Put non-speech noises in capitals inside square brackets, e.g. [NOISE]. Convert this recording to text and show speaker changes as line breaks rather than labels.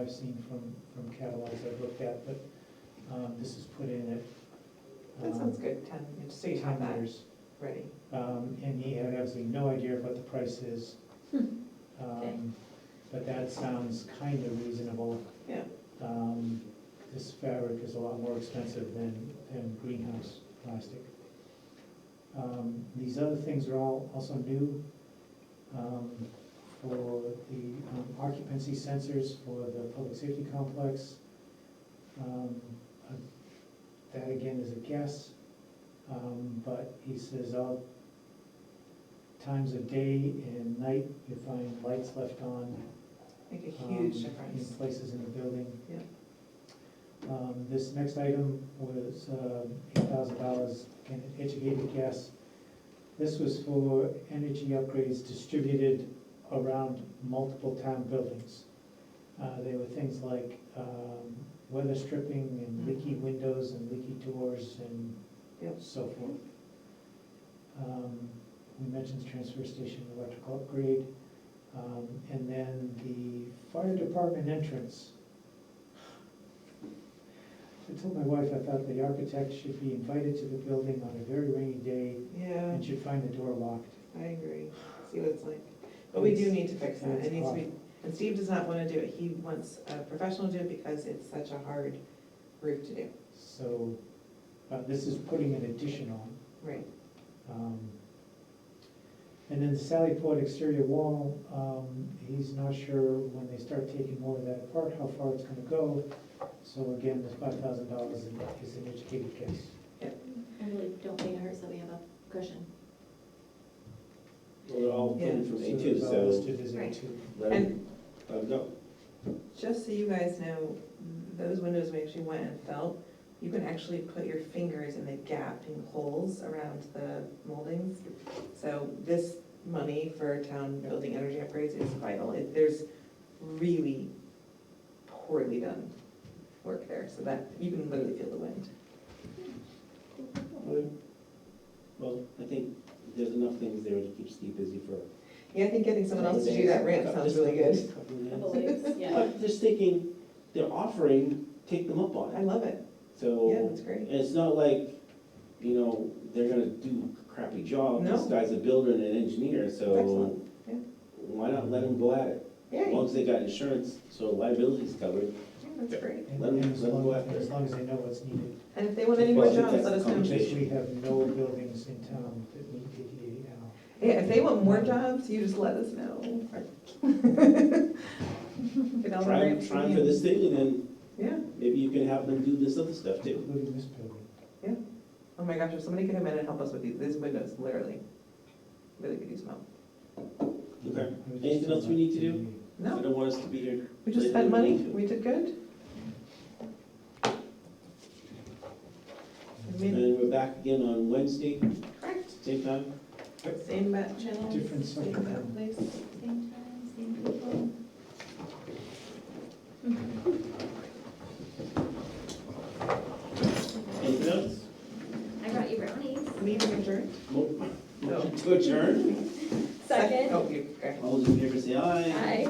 I've seen from, from catalogs I've looked at, but, um, this is put in at.
That
um,
sounds good, ten, you just
Say
have
ten
that
years,
ready.
um, and he had absolutely no idea of what the price is.
Okay.
Um, but that sounds kind of reasonable.
Yeah.
Um, this fabric is a lot more expensive than, than greenhouse plastic. Um, these other things are all also new, um, for the um, occupancy sensors for the public safety complex. Um, uh, That again is a guess, um, but he says all times of day and night, you find lights left on.
Make a
um,
huge difference.
In places in the building.
Yeah.
Um, this next item was, um eight thousand dollars, an educated guess. This was for energy upgrades distributed around multiple town buildings. Uh, they were things like, um, weather stripping and leaky
Mhm.
windows and leaky doors and
Yep.
so forth. Um, We mentioned transfer station electrical upgrade, um, and then the fire department entrance. I told my wife I thought the architect should be invited to the building on a very rainy day
Yeah,
and should find the door locked.
I agree, see what it's like. But we do
It's-
need to fix that,
it's
it needs to be, and Steve does not wanna do it, he wants a professional to do it because it's such a hard roof to do.
So, uh, this is putting an addition on.
Right.
Um, And then the Sally Port exterior wall, um, he's not sure when they start taking more of that apart, how far it's gonna go. So again, this five thousand dollars is an educated guess.
I really don't think it hurts that we have a cushion.
Well, they're all
Yeah.
coming from A two,
it's all
so
listed as A
Right.
two.
then, I would go.
Just so you guys know, those windows we actually went and felt, you can actually put your fingers in the gaping holes around the moldings. So this money for town building energy upgrades is vital. It- There's really poorly done work there, so that, you can literally feel the wind.
Well, I think there's enough things there to keep Steve busy for.
Yeah, I think getting someone else to do that ramp sounds really good.
good.
yeah.
But just thinking, they're offering, take them up on
I
it,
love it. Yeah,
so,
that's great.
and it's not like, you know, they're gonna do a crappy job.
No.
This guy's a builder and an engineer, so
Excellent.
why not let him go at it? As
Yay,
long as they got insurance, so liability's covered.
Yeah, that's great.
And
Let 'em-
and as
let 'em
long,
go after
and as
it.
long as they know what's needed.
And if they want any more
Well, I think
jobs,
that's
let us
the
know.
conversation.
Because we have no buildings in town that need ADA now.
Yeah, if they want more jobs, you just let us
[LAUGHS]
know. Get all the
Try,
grants
try
we
for
need.
this thing, and then
Yeah,
maybe you can have them do this other stuff too.
Including this building.
oh my gosh, if somebody could come in and help us with these, these windows, literally, really could use help.
Okay.
I was just
Anything else we need to
thinking
I
No,
don't want us to be here.
we just spent money, we did good. I
And
mean,
then we're back again on Wednesday,
Correct,
same time.
same bat channel,
about uh, Different
same
subject.
bat place.
Same time, same people.
Anything else?
I brought you brownies.
Meeting adjourned?
Mo- Motion to adjourn?
Oh, you, okay.
All those in favor say aye.
Aye.